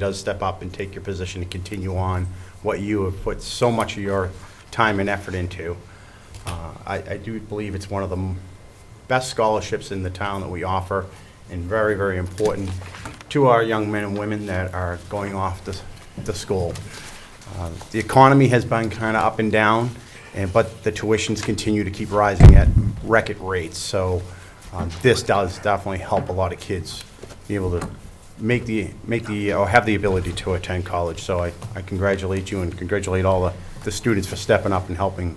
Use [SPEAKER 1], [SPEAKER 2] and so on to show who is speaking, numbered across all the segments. [SPEAKER 1] does step up and take your position and continue on what you have put so much of your time and effort into. Uh, I, I do believe it's one of the m- best scholarships in the town that we offer and very, very important to our young men and women that are going off to, s- to school. Uh, The economy has been kind of up and down, and, but the tuitions continue to keep rising at record rates. So uh, this does definitely help a lot of kids be able to make the, make the, or have the ability to attend college. So I, I congratulate you and congratulate all the, the students for stepping up and helping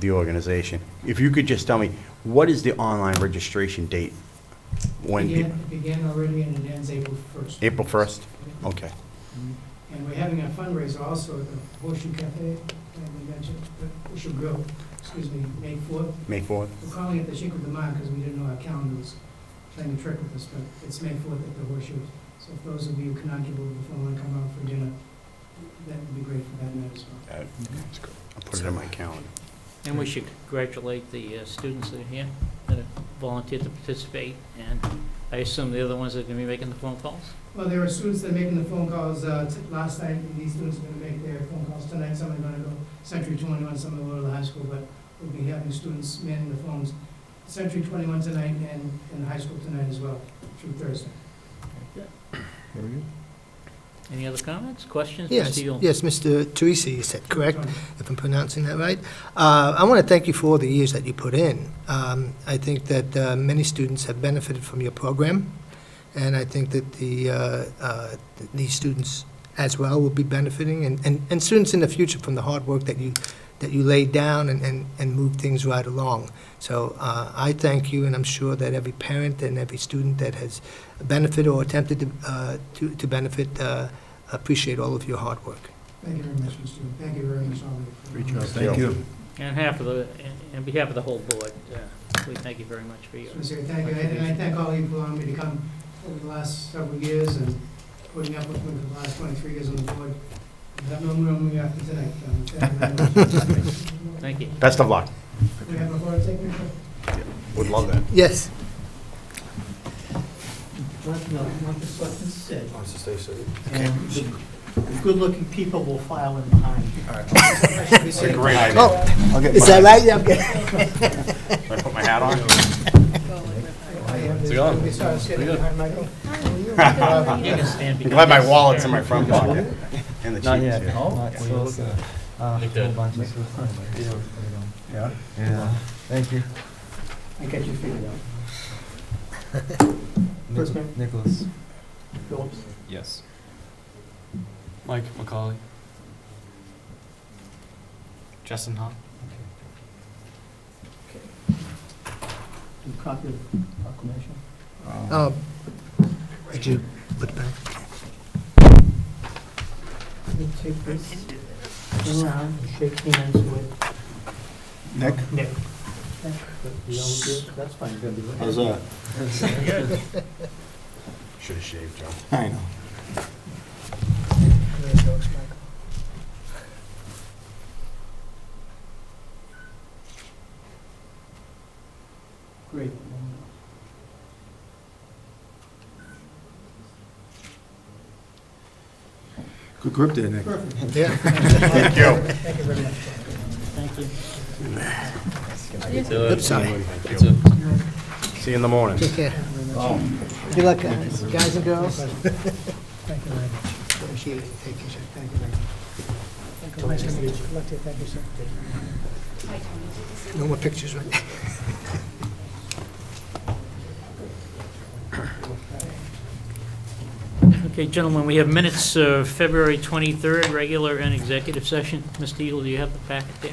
[SPEAKER 1] the organization. If you could just tell me, what is the online registration date? When,
[SPEAKER 2] Began,
[SPEAKER 1] peop-
[SPEAKER 2] began already and it ends April 1st.
[SPEAKER 1] April 1st? okay.
[SPEAKER 2] And we're having a fundraiser also at the Horseshoe Cafe, and we mentioned, the Horseshoe Grill, excuse me, May 4th.
[SPEAKER 1] May 4th?
[SPEAKER 2] We're calling it the Shake of the Mind because we didn't know our calendar was playing a trick with us, but it's May 4th at the Horseshoe. So if those of you who cannot get over the phone and come out for dinner, that would be great for that night as well.
[SPEAKER 1] Uh, I'll put it in my calendar.
[SPEAKER 3] And we should congratulate the uh, students that are here, that have volunteered to participate, and I assume they're the ones that are going to be making the phone calls?
[SPEAKER 2] Well, there are students that are making the phone calls uh, t- last night, and these students are going to make their phone calls tonight. Some are going to go Century 21, some will go to the high school, but we'll be having students manning the phones Century 21 tonight and in the high school tonight as well, through Thursday.
[SPEAKER 3] Any other comments, questions?
[SPEAKER 4] Yes,
[SPEAKER 3] Mr. Yule?
[SPEAKER 4] yes, Mr. Teresi, you said, correct,
[SPEAKER 2] Tony.
[SPEAKER 4] if I'm pronouncing that right. Uh, I want to thank you for all the years that you put in. Um, I think that uh, many students have benefited from your program, and I think that the, uh, uh, th- these students as well will be benefiting, and, and and students in the future from the hard work that you, that you laid down and, and and moved things right along. So uh, I thank you, and I'm sure that every parent and every student that has benefited or attempted to, uh, to to benefit uh, appreciate all of your hard work.
[SPEAKER 2] Thank you very much, Mr. Stewart. Thank you very much, all of you.
[SPEAKER 1] Great job.
[SPEAKER 5] Thank you.
[SPEAKER 3] And half of the, and on behalf of the whole board, uh, we thank you very much for your,
[SPEAKER 2] Just wanna say thank you, and I thank all of you for allowing me to come over the last several years and putting up with me for the last 23 years on the board. I have no room after tonight. um, thank you very much.
[SPEAKER 3] thank you.
[SPEAKER 1] Best of luck.
[SPEAKER 2] We have a photo taken?
[SPEAKER 1] Would love that.
[SPEAKER 4] Yes.
[SPEAKER 6] Let, no, let the selectmen sit. And the the good-looking people will file in behind.
[SPEAKER 1] It's a great
[SPEAKER 4] Oh.
[SPEAKER 1] idea.
[SPEAKER 4] Is that right? Yeah, okay.
[SPEAKER 1] Should I put my hat on?
[SPEAKER 2] It's
[SPEAKER 5] gone.
[SPEAKER 2] We saw it sitting behind Michael.
[SPEAKER 1] Uh,
[SPEAKER 3] You can stand
[SPEAKER 1] I'm glad my
[SPEAKER 3] because-
[SPEAKER 1] wallet's in my front pocket. And the
[SPEAKER 7] Not
[SPEAKER 1] chief is
[SPEAKER 7] yet.
[SPEAKER 1] here.
[SPEAKER 7] Not yet. Uh,
[SPEAKER 3] Like
[SPEAKER 7] whole
[SPEAKER 3] that.
[SPEAKER 7] bunch of stuff.
[SPEAKER 5] Yeah.
[SPEAKER 7] Yeah. Thank you.
[SPEAKER 6] I got you figured out. First name?
[SPEAKER 7] Nicholas.
[SPEAKER 6] Phillips?
[SPEAKER 8] Yes. Mike McCauley. Justin Hahn.
[SPEAKER 6] Do you copy the proclamation?
[SPEAKER 4] Um, Did you put back?
[SPEAKER 6] Let me take this around and shake hands with
[SPEAKER 5] Nick?
[SPEAKER 6] Nick. We all do it? That's fine, good.
[SPEAKER 1] How's that? Should have shaved, Joe.
[SPEAKER 5] I know.
[SPEAKER 6] Great.
[SPEAKER 5] Good grip there, Nick.
[SPEAKER 6] Perfect.
[SPEAKER 4] Yeah.
[SPEAKER 1] Thank you.
[SPEAKER 6] Thank you very much. Thank you.
[SPEAKER 4] Oops, sorry.
[SPEAKER 1] Thank you. See you in the morning.
[SPEAKER 4] Take care. Um, Good luck, guys guys and girls.
[SPEAKER 6] Thank you very much.
[SPEAKER 4] Appreciate it. Take care.
[SPEAKER 6] Thank you very much. Nice to meet you. Like to thank you, sir.
[SPEAKER 4] No more pictures, right?
[SPEAKER 3] Okay, gentlemen, we have minutes of February 23rd, regular and executive session. Mr. Yule, do you have the packet there?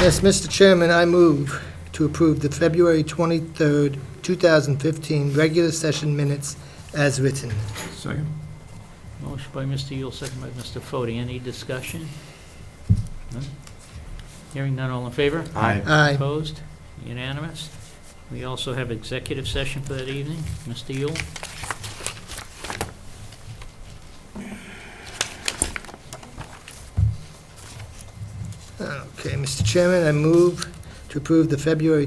[SPEAKER 4] Yes, Mr. Chairman, I move to approve the February 23rd, 2015 regular session minutes as written.
[SPEAKER 5] Second.
[SPEAKER 3] Motion by Mr. Yule, second by Mr. Fode. Any discussion? None? Hearing none, all in favor?
[SPEAKER 1] Aye.
[SPEAKER 4] Aye.
[SPEAKER 3] Opposed? Unanimous? We also have executive session for that evening. Mr. Yule?
[SPEAKER 4] Okay, Mr. Chairman, I move to approve the February